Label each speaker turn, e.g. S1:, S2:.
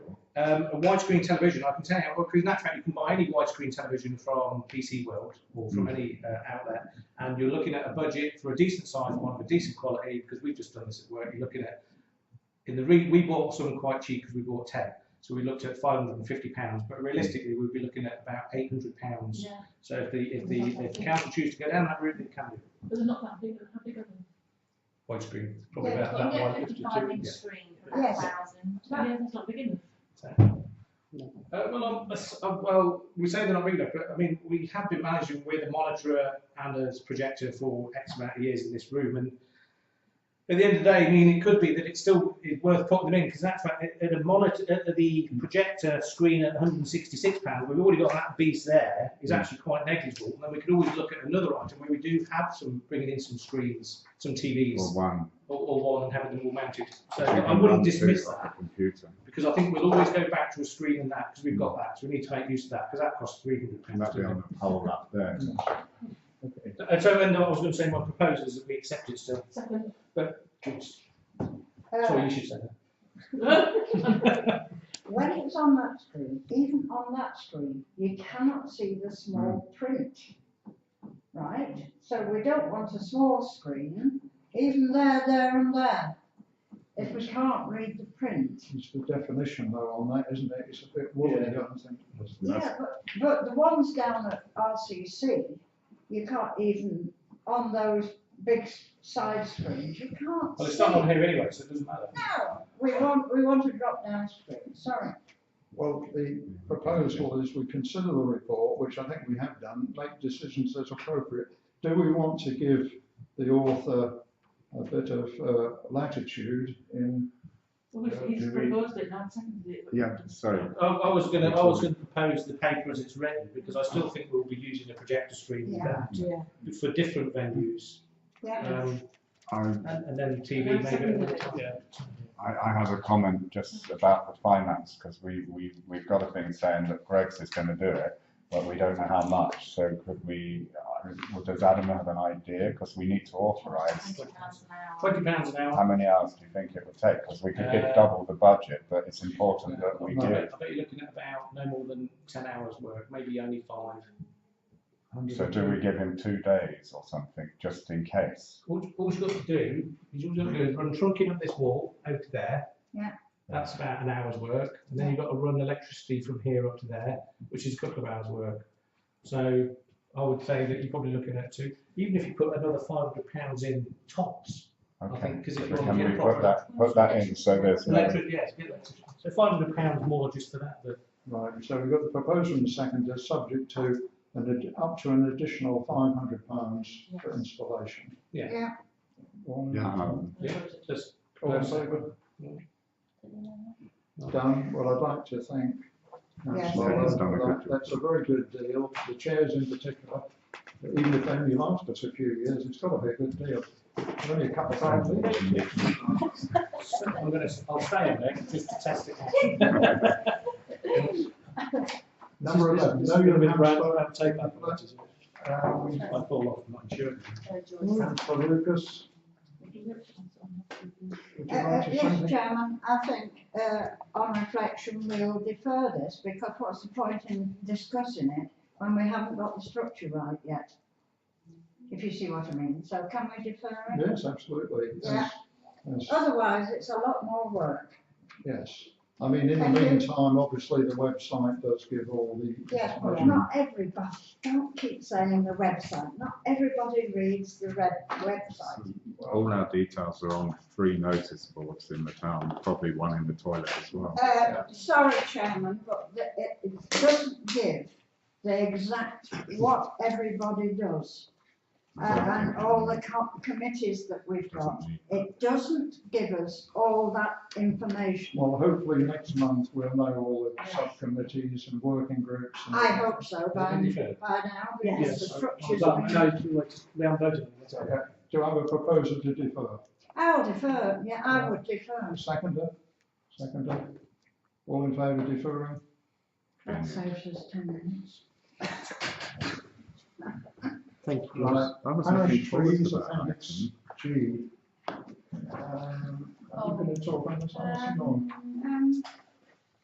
S1: um, a widescreen television, I can tell you, well, because fact you can buy any widescreen television from PC World or from any uh, outlet, and you're looking at a budget for a decent size one of a decent quality, because we've just done this at work, you're looking at, in the re, we bought some quite cheap because we bought 10. So we looked at £550, but realistically, we'd be looking at about £800.
S2: Yeah,
S1: So if the, if the, if the council choose to go down that route, it can be
S2: but they're not that big, how big are they?
S1: widescreen, probably
S3: Yeah,
S1: about
S3: you've got
S1: that
S3: a
S1: one.
S3: net fifty-five inch
S1: yeah.
S3: screen for about a
S4: Yes.
S3: thousand.
S2: Yeah, that's not big enough.
S1: Uh, well, I'm- that's- uh, well, we say they're not big enough, but I mean, we have been managing with a monitor and a projector for X amount of years in this room, and at the end of the day, I mean, it could be that it's still it's worth putting them in because that's fact at- at a monitor, at at the projector screen at 166 pounds, we've already got that beast there. Is actually quite negligible, and then we could always look at another item where we do have some bringing in some screens, some TVs,
S5: or one.
S1: or, or one and having them all mounted. So
S5: You
S1: I
S5: can run
S1: wouldn't dismiss
S5: through it
S1: that
S5: like a Computer,
S1: because I think we'll always go back to a screen and that because we've got that, so we need to make use of that because that costs three hundred
S5: and that'd be
S1: pounds.
S5: on the pole up there.
S1: And so, and I was going to say my proposal is that we accept it still.
S2: Second.
S4: Uh,
S1: Sorry, you should say
S4: When it's on that screen, even on that screen, you cannot see the
S1: Hmm.
S4: small print. Right? So we don't want a small screen, even there, there and there, if we can't read the print.
S6: It's the definition though on that, isn't it? It's a bit woolly, I don't think.
S4: Yeah, but, but the ones down at RCC, you can't even, on those big s- side screens, you can't
S1: Well, it's
S4: see.
S1: not on here anyway, so it doesn't matter.
S4: No, we want, we want a drop down screen, sorry.
S6: Well, the proposal is we consider the report, which I think we have done, make decisions as appropriate. Do we want to give the author a bit of uh, latitude in,
S2: Well, we've-
S6: Yeah,
S2: he's
S6: do we-
S2: proposed it, now I've seconded it. but-
S5: Yeah, sorry.
S1: I, I was going to, I was going to propose the paper as it's written because I still think we'll be using a projector screen for that,
S2: Yeah.
S1: for different venues,
S4: Yeah,
S1: um,
S5: I,
S1: and, and then TV maybe. Yeah.
S5: I, I have a comment just about the finance, because we, we, we've got a thing saying that Greg's is gonna do it, but we don't know how much, so could we, uh, well, does Adam have an idea? Because we need to authorize,
S3: Twenty pounds an hour.
S1: Twenty pounds an hour.
S5: how many hours do you think it would take? Because we could give
S1: Uh,
S5: double the budget, but it's important that we
S1: I
S5: give.
S1: bet, I bet you're looking at about no more than ten hours work, maybe only five.
S5: So do we give him two days or something, just in case?
S1: All, all you've got to do, is all you've got to do is run trunking up this wall out to there.
S4: Yeah.
S1: That's about an hour's work, and then you've got to run electricity from here up to there, which is a couple of hours' work. So I would say that you're probably looking at two, even if you put another five hundred pounds in tops, I
S5: Okay,
S1: think, because if you want to
S5: can
S1: get
S5: we put
S1: proper.
S5: that, put that in, so there's no.
S1: Electric, yes, get electric, so five hundred pounds more just for that, but
S6: right, so we've got the proposal in the second, is subject to an, ad- up to an additional five hundred pounds for installation.
S1: Yeah.
S4: Yeah.
S6: One-
S5: Yeah.
S1: yeah, just.
S6: All in favour? Done. Well, I'd like to thank
S4: Yes.
S6: Councillor
S5: Yeah, he's
S6: Allen
S5: done a
S6: for
S5: good
S6: that. That's a very good deal, the chairs in particular. Even if they only last us a few years, it's got to be a good deal. Only a couple of times.
S1: I'm gonna, I'll stay in there, just to test it out.
S6: Number
S1: This is-
S6: eleven,
S1: this
S6: no,
S1: is gonna be
S6: you
S1: round- round tape, I thought, isn't it?
S6: uh,
S1: I
S6: have,
S1: fall off my insurance.
S3: So Joyce,
S6: Councillor Lucas, would
S4: Uh,
S6: you
S4: uh, yes,
S6: like to say something?
S4: Chairman, I think, uh, on reflection, we'll defer this because what's the point in discussing it when we haven't got the structure right yet? If you see what I mean, so can we defer it?
S6: Yes, absolutely. Yes. Yes.
S4: Otherwise, it's a lot more work.
S6: Yes, I mean, in the
S4: Thank you.
S6: meantime, obviously, the website does give all the.
S4: Yes, but
S6: information.
S4: not everybody, don't keep saying the website, not everybody reads the web, website.
S5: All our details are on three notice boards in the town, probably one in the toilet as well.
S4: Uh, sorry, Chairman, but the, it, it doesn't give the exact what everybody does. uh, And all the co- committees that we've got, it doesn't give us all that information.
S6: Well, hopefully next month we'll know all the subcommittees and working groups. and-
S4: I hope so by, by now, because um, the
S1: Yes.
S4: structures.
S6: So, yeah, Do I have a proposal to defer?
S4: I'll defer, yeah, I would defer.
S6: Seconder? Seconder? All in favour of deferring?
S4: That saves us ten minutes.
S7: Thank you.
S6: Right.
S5: I was looking
S6: Parish
S5: forward to
S6: trees
S5: that.
S6: appendix
S5: actually.
S4: Uh,
S6: G. Um, Are you going to talk on this? I'm not.
S4: Um,